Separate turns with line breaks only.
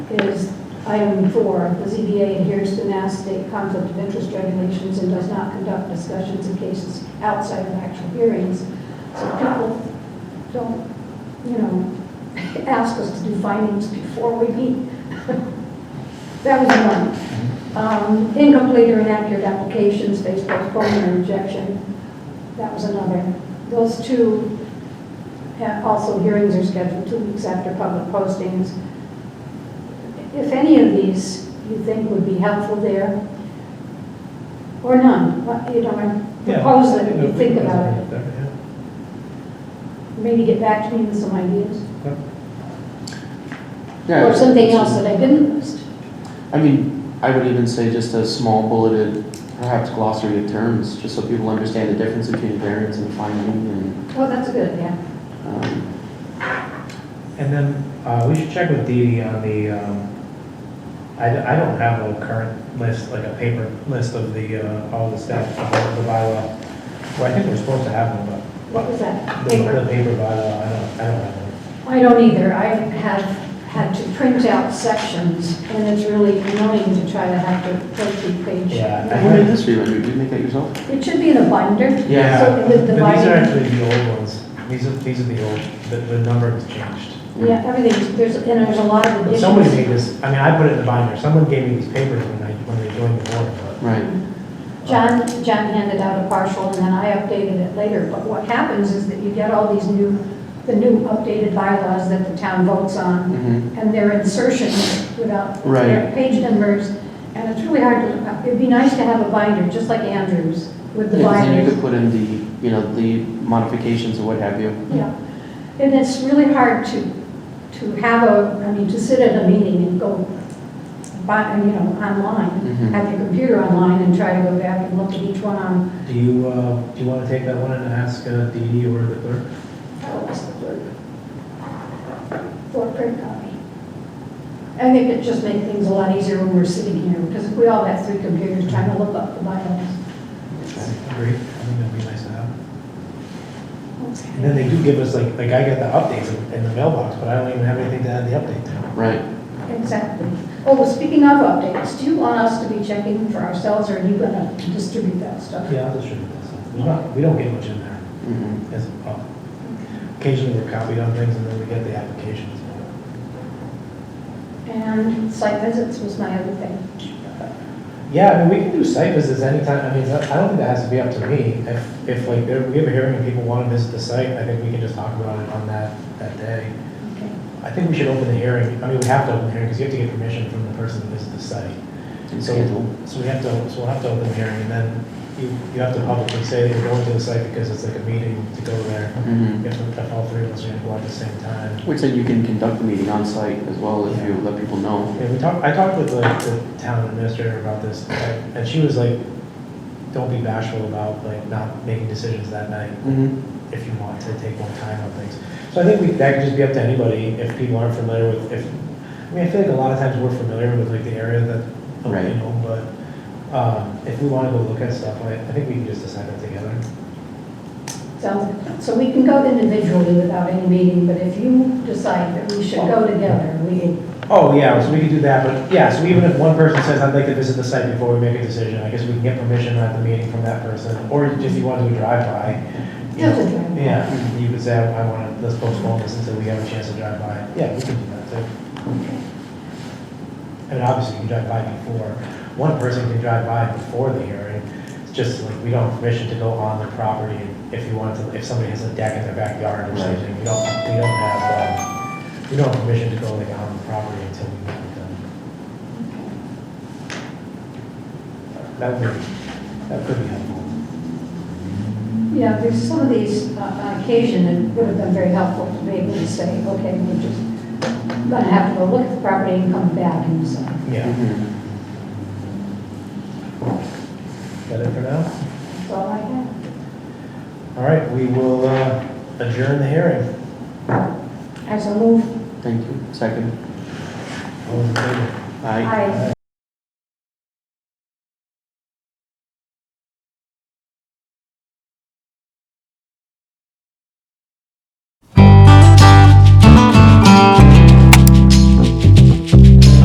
is item four, the ZBA adheres to Mass State Conflict of Interest regulations and does not conduct discussions in cases outside of actual hearings. So people don't, you know, ask us to do findings before we meet. That was one. Um, Incomplete or inaccurate applications based postponement or rejection, that was another. Those two, ha- also hearings are scheduled two weeks after public postings. If any of these you think would be helpful there, or none, what- you know, I
Yeah.
propose that you think about it.
Yeah.
Maybe get back to me with some ideas,
Yeah,
or something else that I didn't list.
I mean, I would even say just a small bulleted, perhaps glossary of terms, just so people understand the difference between a variance and a finding and,
Oh, that's good, yeah.
um,
And then, uh, we should check with Dee Dee on the, um, I, d- I don't have a current list, like a paper list of the, uh, all the stuff, of the bylaw. Well, I think we're supposed to have one,
What was that?
but the, the paper bylaw, I don't, I don't have one.
I don't either. I have had to print out sections, and it's really annoying to try to have to go through page.
Yeah, I
what did this remind you, did you make that yourself?
It should be in a binder.
Yeah,
So
But
with the
these are
binder,
actually the old ones. These are, these are the old, the, the number has changed.
yeah, everything, there's, and there's a lot of
But Somebody
additions.
made this, I mean, I put it in the binder. Someone gave me these papers when I, when they joined the board, but.
Right,
John, John handed out a partial, and then I updated it later. But what happens is that you get all these new, the new updated bylaws that the town votes on,
mhm,
and their insertions without
Right.
their page numbers, and it's really hard to, look up. it'd be nice to have a binder, just like Andrew's, with the
yeah, 'cause then you
binders.
could put in the, you know, the modifications and what have you.
Yeah, and it's really hard to, to have a, I mean, to sit at a meeting and go by, you know, online,
Mhm.
have your computer online and try to go back and look at each one on,
Do you, uh, do you want to take that one and ask uh, Dee Dee or the clerk?
oh, what's the word? For a print copy. I think it just makes things a lot easier when we're sitting here, because if we all have three computers trying to look up the bylaws.
Agree? I think that'd be nice to have. And then they do give us, like, like I get the updates in- in the mailbox, but I don't even have anything to add the update to.
Right,
Exactly. Oh, well, speaking of updates, do you want us to be checking for ourselves, or are you gonna distribute that stuff?
Yeah, I'll distribute that. stuff. We don't, we don't get much in there.
mhm,
Yes, well, Occasionally we're copied on things and then we get the applications.
And site visits was my other thing.
Yeah, I mean, we can do site visits anytime, I mean, I don't think that has to be up to me. If, if like, there- we have a hearing and people want to visit the site, I think we can just talk about it on that, that day.
Okay.
I think we should open the hearing, I mean, we have to open the hearing because you have to get permission from the person that visits the site.
and
So,
schedule.
so we have to, so we'll have to open the hearing and then you, you have to publicly say that you're going to the site because it's like a meeting to go there.
Mhm.
You have to, if all three of us are going to go at the same time.
Which then you can conduct the meeting on site as well if you let people know.
Yeah, we talked, I talked with like the town administrator about this, and and she was like, don't be bashful about like not making decisions that night
Mhm,
if you want to take more time on things. So I think we, that could just be up to anybody if people aren't familiar with, if, I mean, I feel like a lot of times we're familiar with like the area that, you
Right.
know, but, um, if we wanna go look at stuff, I, I think we can just decide that together.
So, so we can go individually without any meeting, but if you decide that we should go together, we,
Oh, yeah, so we could do that, but, yeah, so even if one person says, I'd like to visit the site before we make a decision, I guess we can get permission at the meeting from that person, or if you want to do a drive-by. you
Just a
know,
drive-by.
Yeah, you could say, I want to, let's postpone this until we have a chance to drive by. Yeah, we can do that too. I mean, obviously, you can drive by before, one person can drive by before the hearing, it's just like, we don't have permission to go on their property, if you want to, if somebody has a deck in their backyard or
Right.
something, we don't, we don't have, um, we don't have permission to go like on the property until we meet with them. That would, that could be helpful.
yeah, there's some of these, uh, on occasion, it would have been very helpful to be able to say, okay, we're just gonna have to go look at the property and come back and decide.
Yeah,
mhm.
is that it for now?
That's all I have.
All right, we will uh, adjourn the hearing.
As a move,
Thank you, second.
All those in favor?
Aye.
I.